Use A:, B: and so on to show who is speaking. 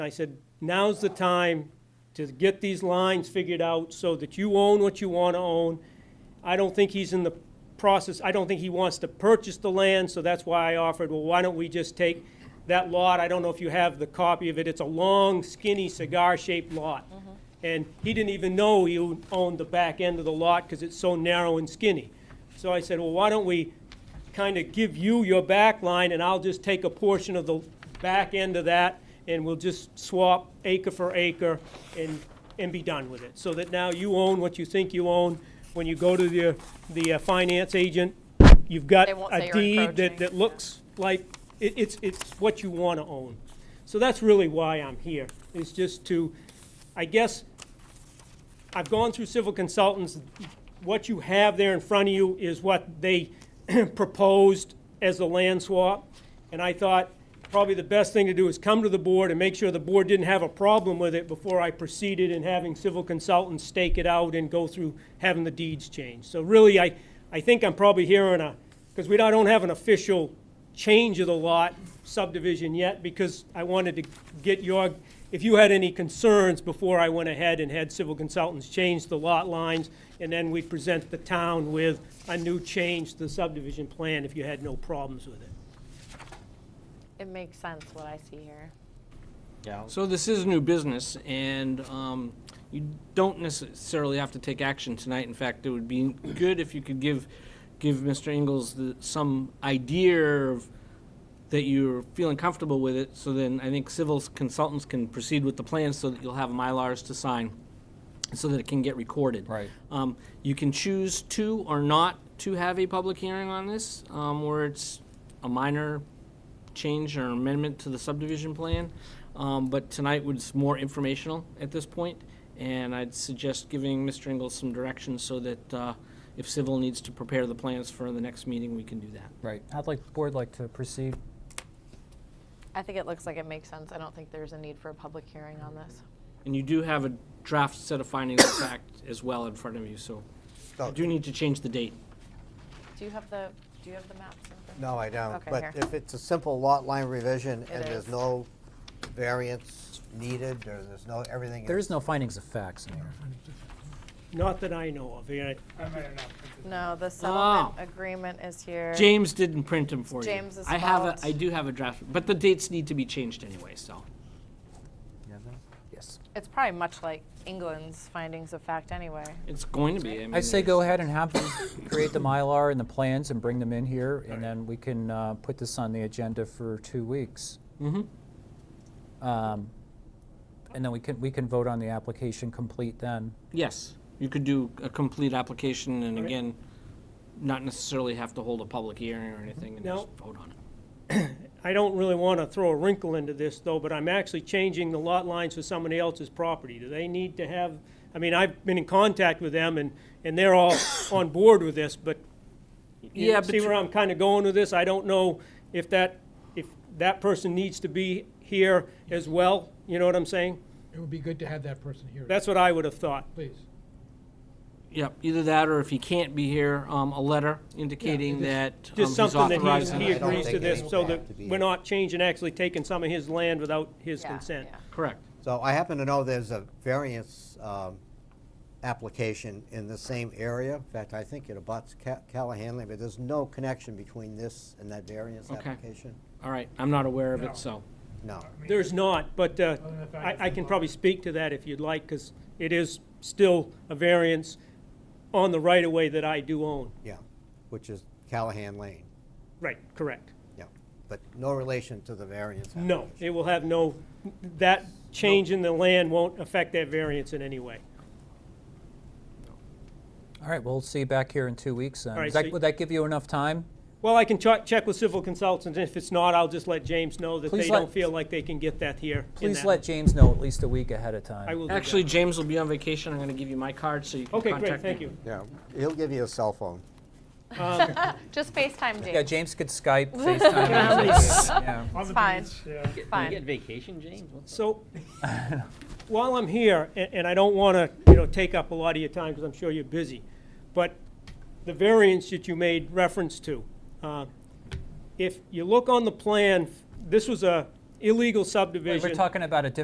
A: I said, now's the time to get these lines figured out so that you own what you want to own. I don't think he's in the process, I don't think he wants to purchase the land, so that's why I offered, well, why don't we just take that lot? I don't know if you have the copy of it, it's a long, skinny, cigar-shaped lot. And he didn't even know he owned the back end of the lot because it's so narrow and skinny. So I said, well, why don't we kind of give you your back line, and I'll just take a portion of the back end of that, and we'll just swap acre for acre and, and be done with it. So that now you own what you think you own. When you go to the, the uh, finance agent, you've got
B: They won't say
A: a
B: you're
A: deed that,
B: encroaching,
A: that
B: yeah.
A: looks like, it, it's, it's what you want to own. So that's really why I'm here, is just to, I guess, I've gone through civil consultants. What you have there in front of you is what they proposed as a land swap. And I thought probably the best thing to do is come to the board and make sure the board didn't have a problem with it before I proceeded in having civil consultants stake it out and go through having the deeds changed. So really, I, I think I'm probably here on a, because we don't have an official change of the lot subdivision yet, because I wanted to get your, if you had any concerns before I went ahead and had civil consultants change the lot lines, and then we present the town with a new change to the subdivision plan if you had no problems with it.
B: It makes sense what I see here.
C: Yeah.
D: So this is new business, and um, you don't necessarily have to take action tonight. In fact, it would be good if you could give, give Mr. Ingles the- some idea of, that you're feeling comfortable with it, so then I think civil consultants can proceed with the plans so that you'll have Mylars to sign, so that it can get recorded.
C: Right.
D: Um, You can choose to or not to have a public hearing on this, um, where it's a minor change or amendment to the subdivision plan. Um, But tonight was more informational at this point, and I'd suggest giving Mr. Ingles some direction so that uh, if Civil needs to prepare the plans for the next meeting, we can do that.
C: Right. I'd like, the board like to proceed.
B: I think it looks like it makes sense. I don't think there's a need for a public hearing on this.
D: And you do have a draft set of findings of fact as well in front of you, so
E: Oh.
D: I do need to change the date.
B: Do you have the, do you have the maps? in front?
E: No, I don't.
B: Okay, here.
E: But if it's a simple lot line revision and
B: It
E: there's
B: is.
E: no variance needed, or there's no, everything.
C: There is no findings of facts in here.
A: Not that I know of, yeah.
B: No, the settlement agreement is here.
D: James didn't print them for you.
B: James is
D: I have a,
B: fault.
D: I do have a draft, but the dates need to be changed anyway, so.
C: Yes.
B: It's probably much like England's findings of fact anyway.
D: It's going to be. I, mean,
C: I say
D: there's-
C: go ahead and have them create the Mylar and the plans and bring them in here, and then we can uh, put this on the agenda for two weeks.
A: Mm-hmm.
C: Um, And then we can, we can vote on the application complete then.
D: Yes, you could do a complete application and again, not necessarily have to hold a public hearing or anything and just vote on it.
A: I don't really want to throw a wrinkle into this, though, but I'm actually changing the lot lines for somebody else's property. Do they need to have, I mean, I've been in contact with them, and, and they're all on board with this, but you
D: Yeah, but
A: see
D: you-
A: where I'm kind of going with this? I don't know if that, if that person needs to be here as well, you know what I'm saying?
F: It would be good to have that person here,
A: That's what I would have thought.
F: please.
D: Yep, either that or if he can't be here, um, a letter indicating that
A: Just
D: um, he's
A: something that
D: authorizing.
A: he, he
E: I don't
A: agrees to
E: think
A: this,
E: anyone
A: so
E: would
A: that
E: have to be
A: we're
E: here.
A: not changing, actually taking some of his land without his
B: Yeah,
A: consent.
B: yeah.
D: Correct.
E: So I happen to know there's a variance um, application in the same area. In fact, I think it abuts Ca- Callahanly, but there's no connection between this and that variance
D: Okay.
E: application.
D: All right, I'm not aware of
F: No.
D: it, so.
E: No.
A: There's not, but uh,
F: Other than the fact
A: I
F: it's
A: I
F: in
A: can
F: law.
A: probably speak to that if you'd like, because it is still a variance on the right-of-way that I do own.
E: Yeah, which is Callahan Lane.
A: Right, correct.
E: Yeah, but no relation to the variance.
A: No,
E: application.
A: it will have no, that change in the land won't affect that variance in any way.
C: All right, we'll see you back here in two weeks. then.
A: All right,
C: Does
A: so
C: that-
A: you-
C: Would that give you enough time?
A: Well, I can ch- check with civil consultants, and if it's not, I'll just let James know that they
C: Please let-
A: don't feel like they can get that here. in
C: Please
A: that-
C: let James know at least a week ahead of time.
A: I will do that.
D: Actually, James will be on vacation. I'm going to give you my card so you can
A: Okay,
D: contact me.
A: great, thank you.
E: Yeah, he'll give you a cell phone.
B: Just FaceTime
C: Yeah,
B: James.
C: James could Skype, FaceTime. Yeah.
B: It's fine. It's
G: Get
B: fine.
G: vacation, James? What's
A: So, while I'm here, a- and I don't want to, you know, take up a lot of your time, because I'm sure you're busy, but the variance that you made reference to, uh, if you look on the plan, this was a illegal subdivision.
C: We're talking about a different